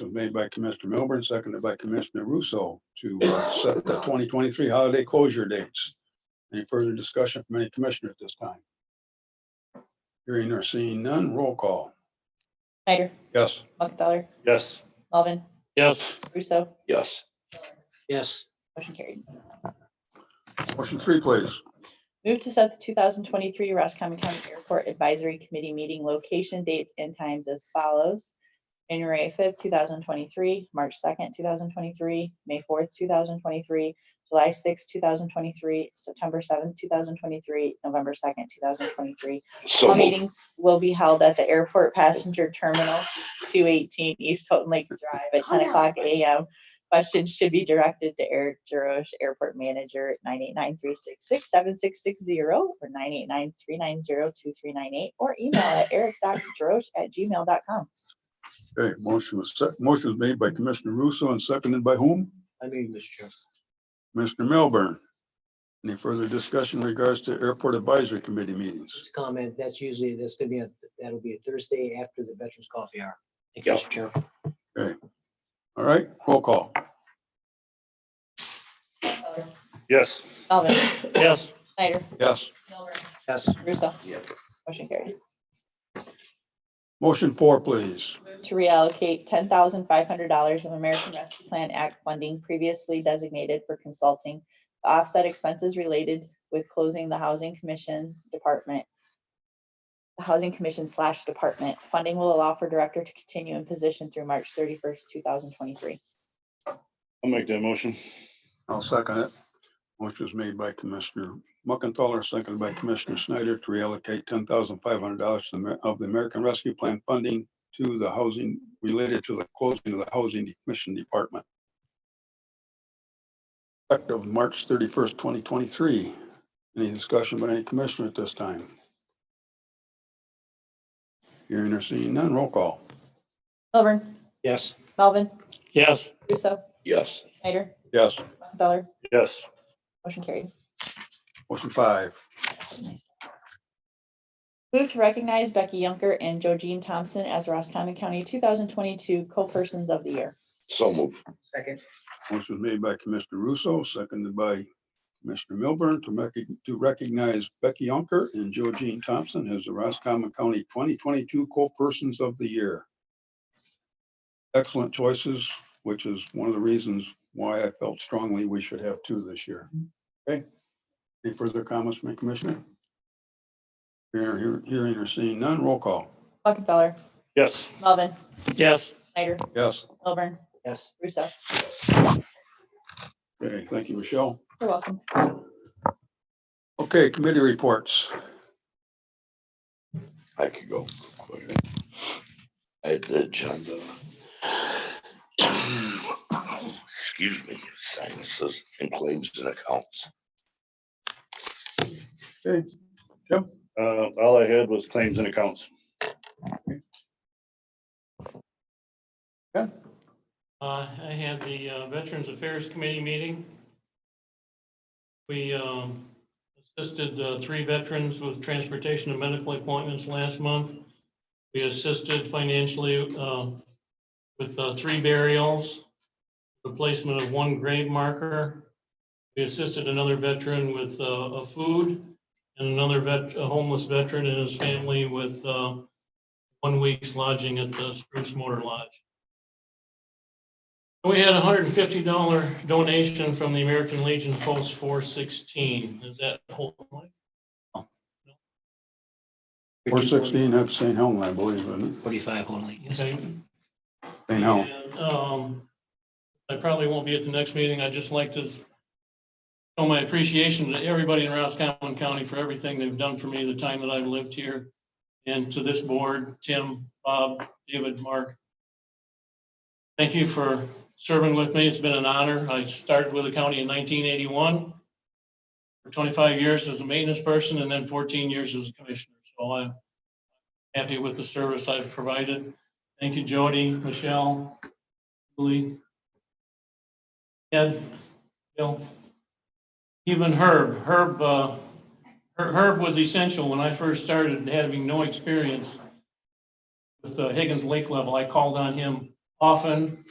was made by Commissioner Milburn, seconded by Commissioner Russo to uh, set the twenty twenty-three holiday closure dates. Any further discussion from any commissioner at this time? Hearing or seeing none, roll call. Snyder, Yes. Muckenthaler, Yes. Melvin, Yes. Russo, Yes. Yes. motion carried. Motion three, please. Move to set the two thousand twenty-three Roscommon County Airport Advisory Committee meeting location, dates, and times as follows. January fifth, two thousand twenty-three, March second, two thousand twenty-three, May fourth, two thousand twenty-three, July sixth, two thousand twenty-three, September seventh, two thousand twenty-three, November second, two thousand twenty-three. So All moved. meetings will be held at the Airport Passenger Terminal, two eighteen East Houghton Lake Drive at ten o'clock AM. Questions should be directed to Eric Jerosh, Airport Manager, nine eight nine three six six seven six six zero or nine eight nine three nine zero two three nine eight or email at eric.jerosh@gmail.com. Okay, motion was, sec- motion was made by Commissioner Russo and seconded by whom? I mean, Mr. Chair. Commissioner Milburn. Any further discussion in regards to Airport Advisory Committee meetings? Just a comment, that's usually, that's gonna be, a that'll be a Thursday after the Veterans Coffee Hour. Thank you, Mr. Chair. All right, roll call. Yes. Melvin, Yes. Snyder, Yes. Yes, Russo. Yep. Motion carried. Motion four, please. to reallocate ten thousand five hundred dollars of American Rescue Plan Act funding previously designated for consulting to offset expenses related with closing the Housing Commission Department. The Housing Commission slash Department. Funding will allow for Director to continue in position through March thirty-first, two thousand twenty-three. I'll make that motion. I'll second it. Motion was made by Commissioner Muckenthaler, seconded by Commissioner Snyder to reallocate ten thousand five hundred dollars of the American Rescue Plan funding to the housing, related to the closing of the Housing Commission Department. Effective March thirty-first, twenty twenty-three. Any discussion by any commissioner at this time? Hearing or seeing none, roll call. Milburn, yes, Melvin, Yes. Russo, Yes. Snyder, Yes. Dollar, Yes. motion carried. Motion five. Move to recognize Becky Yunker and Jojean Thompson as Roscommon County two thousand twenty-two co-persons of the year. So moved. Motion was made by Commissioner Russo, seconded by Commissioner Milburn to rec- to recognize Becky Unker and Georgine Thompson as the Roscommon County twenty twenty-two co-persons of the year. Excellent choices, which is one of the reasons why I felt strongly we should have two this year. Okay? Any further comments from the commissioner? Hearing hear- hearing or seeing none, roll call. Muckenthaler, Yes. Melvin, Yes. Snyder, Yes. Milburn, yes. Russo. Okay, thank you, Michelle. You're welcome. Okay, committee reports. I could go. quick. I had the agenda. Excuse me, sinuses and claims and accounts. Okay. Uh, all I had was claims and accounts. Uh, I had the uh, Veterans Affairs Committee meeting. We, um, assisted, uh, three veterans with transportation and medical appointments last month. We assisted financially, uh, with, uh, three burials, replacement of one grave marker. We assisted another veteran with, uh, a food and another vet, a homeless veteran and his family with, uh, one week's lodging at the Spruce Motor Lodge. We had a hundred and fifty dollar donation from the American Legion Post four sixteen. Is that the whole? one? Four sixteen, that's St. Helm, I believe, isn't Forty-five only, yes. Okay. it? St. Helm. And, Um, I probably won't be at the next meeting. I'd just like to s- show my appreciation to everybody in Roscommon County for everything they've done for me the time that I've lived here. And to this board, Tim, Bob, David, Mark. Thank you for serving with me. It's been an honor. I started with the county in nineteen eighty-one. For twenty-five years as a maintenance person and then fourteen years as a commissioner. So I'm happy with the service I've provided. Thank you, Jody, Michelle, Julie. Ed, Bill. Even Herb, Herb, uh, Her- Herb was essential when I first started having no experience with the Higgins Lake level. I called on him often